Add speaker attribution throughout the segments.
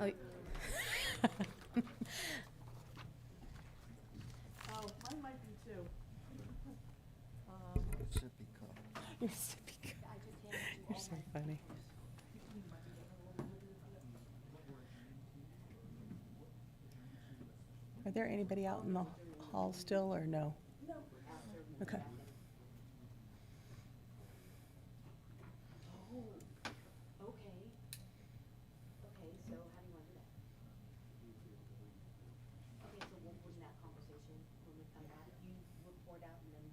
Speaker 1: Oh.
Speaker 2: Oh, mine might be two.
Speaker 3: Sippy cup.
Speaker 1: You're so big. You're so funny. Are there anybody out in the hall still, or no? No. Okay.
Speaker 4: Okay. Okay, so how do you want to do that? Okay, so we'll bring that conversation when we come back. You report out and then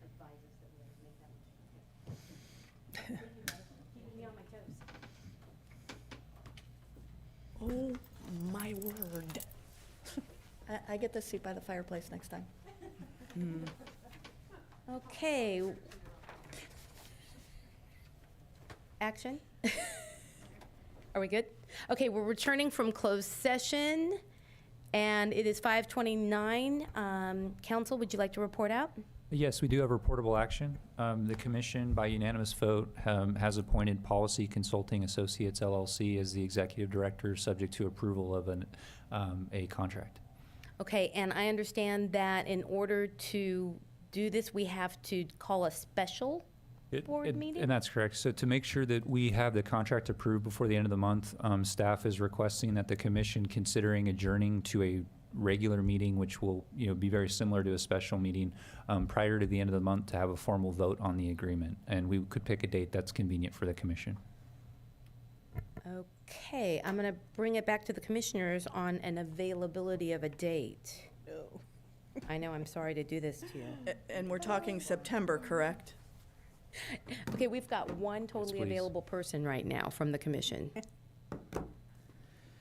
Speaker 4: advise us that we're gonna make that motion. Thank you, guys. Keeping me on my toes.
Speaker 1: Oh, my word.
Speaker 5: I, I get this seat by the fireplace next time. Hmm. Okay.
Speaker 4: Action? Are we good? Okay, we're returning from closed session, and it is 5:29. Um, Council, would you like to report out?
Speaker 6: Yes, we do have reportable action. Um, The commission, by unanimous vote, um, has appointed Policy Consulting Associates LLC as the executive director, subject to approval of an, um, a contract.
Speaker 4: Okay, and I understand that in order to do this, we have to call a special?
Speaker 6: It-
Speaker 4: Board
Speaker 6: it-
Speaker 4: meeting?
Speaker 6: And that's correct. So to make sure that we have the contract approved before the end of the month, um, staff is requesting that the commission considering adjourning to a regular meeting, which will, you know, be very similar to a special meeting, um, prior to the end of the month to have a formal vote on the agreement. And we could pick a date that's convenient for the commission.
Speaker 4: Okay, I'm going to bring it back to the commissioners on an availability of a date.
Speaker 2: No.
Speaker 4: I know, I'm sorry to do this to you.
Speaker 2: A- And we're talking September, correct?
Speaker 4: Okay, we've got one totally
Speaker 6: please.
Speaker 4: available person right now from the commission.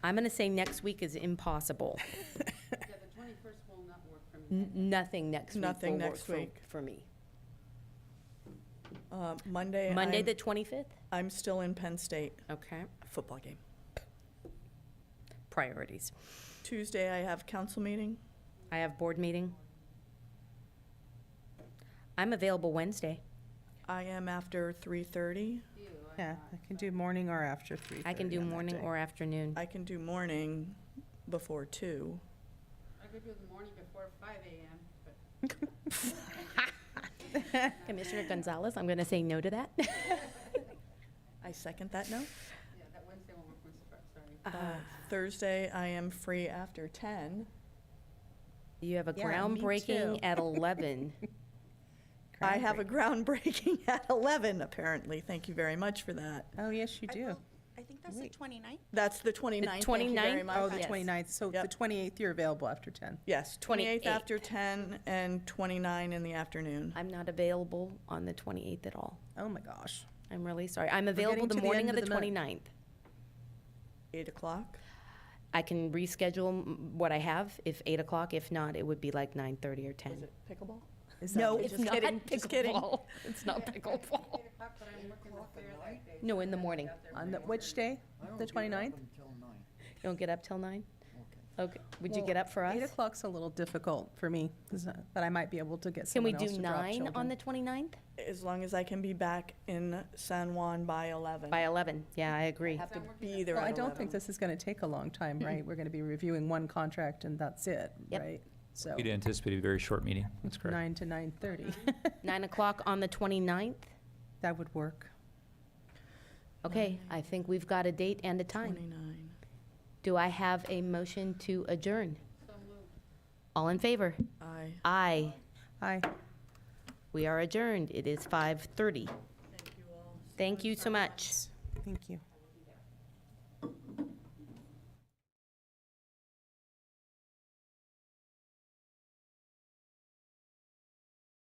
Speaker 4: I'm going to say next week is impossible.
Speaker 7: Yeah, the twenty-first will not work for me.
Speaker 4: N- Nothing next week
Speaker 2: Nothing
Speaker 4: will work
Speaker 2: next
Speaker 4: for,
Speaker 2: week.
Speaker 4: for me.
Speaker 2: Uh, Monday,
Speaker 4: Monday,
Speaker 2: I'm,
Speaker 4: the 25th?
Speaker 2: I'm still in Penn State
Speaker 4: Okay,
Speaker 2: football game.
Speaker 4: priorities.
Speaker 2: Tuesday, I have council meeting.
Speaker 4: I have board meeting. I'm available Wednesday.
Speaker 2: I am after 3:30.
Speaker 1: Yeah, I can do morning or after three.
Speaker 4: I can do morning or afternoon.
Speaker 2: I can do morning before 2.
Speaker 7: I could do the morning before five AM, but
Speaker 4: Commissioner Gonzalez, I'm going to say no to that.
Speaker 2: I second that note.
Speaker 7: yeah, that Wednesday won't work, I'm so- sorry.
Speaker 2: Uh, Thursday, I am free after 10.
Speaker 4: You have a
Speaker 1: Yeah, me
Speaker 4: groundbreaking
Speaker 1: too.
Speaker 4: at 11.
Speaker 2: I have a groundbreaking at 11, apparently. Thank you very much for that.
Speaker 1: Oh, yes, you do.
Speaker 5: I think that's the
Speaker 1: Wait.
Speaker 5: 29th.
Speaker 2: That's the 29th. Thank you
Speaker 4: 29th?
Speaker 2: very
Speaker 1: Oh,
Speaker 2: much.
Speaker 1: the
Speaker 4: Yes.
Speaker 1: 29th, so the
Speaker 2: Yep.
Speaker 1: 28th, you're available after 10.
Speaker 2: Yes,
Speaker 4: 28th.
Speaker 2: 28th after 10 and 29 in the afternoon.
Speaker 4: I'm not available on the 28th at all.
Speaker 1: Oh, my gosh.
Speaker 4: I'm really sorry. I'm
Speaker 1: getting
Speaker 4: available the
Speaker 1: to the
Speaker 4: morning
Speaker 1: end
Speaker 4: of the
Speaker 1: of the month.
Speaker 4: 29th.
Speaker 2: 8 o'clock.
Speaker 4: I can reschedule m- what I have if 8 o'clock. If not, it would be like 9:30 or 10.
Speaker 2: pickleball?
Speaker 1: Is
Speaker 2: No,
Speaker 1: that-
Speaker 2: Oh, it's not Just kidding.
Speaker 4: It's not pickleball.
Speaker 7: Eight o'clock, but I'm working the fair that day.
Speaker 4: No, in the morning.
Speaker 1: On the, which day?
Speaker 3: I don't
Speaker 1: The
Speaker 3: get up
Speaker 1: 29th?
Speaker 3: Until nine,
Speaker 4: You don't get up till 9?
Speaker 3: okay.
Speaker 4: Okay. Would you get up for us?
Speaker 1: 8 o'clock's a little difficult for me, 'cause, uh, but I might be able to get
Speaker 4: Can we
Speaker 1: someone else
Speaker 4: do
Speaker 1: to drop
Speaker 4: nine on
Speaker 1: children.
Speaker 4: the 29th?
Speaker 2: As long as I can be back in San Juan by 11.
Speaker 4: By 11, yeah, I agree.
Speaker 2: Have to
Speaker 7: I'm working
Speaker 2: be there
Speaker 1: Well,
Speaker 2: at
Speaker 1: I don't think
Speaker 2: 11.
Speaker 1: this is going to take a long time, right? We're going to be reviewing one contract and that's it,
Speaker 4: Yep.
Speaker 1: right? So
Speaker 6: We'd anticipate a very short meeting. That's correct.
Speaker 1: nine to 9:30.
Speaker 4: 9 o'clock on the 29th?
Speaker 1: That would work.
Speaker 4: Okay, I think we've got a date and a time.
Speaker 2: 29.
Speaker 4: Do I have a motion to adjourn? All in favor?
Speaker 2: I.
Speaker 4: Aye.
Speaker 1: Aye.
Speaker 4: We are adjourned. It is 5:30. Thank you all. Thank you so much.
Speaker 1: Thank you.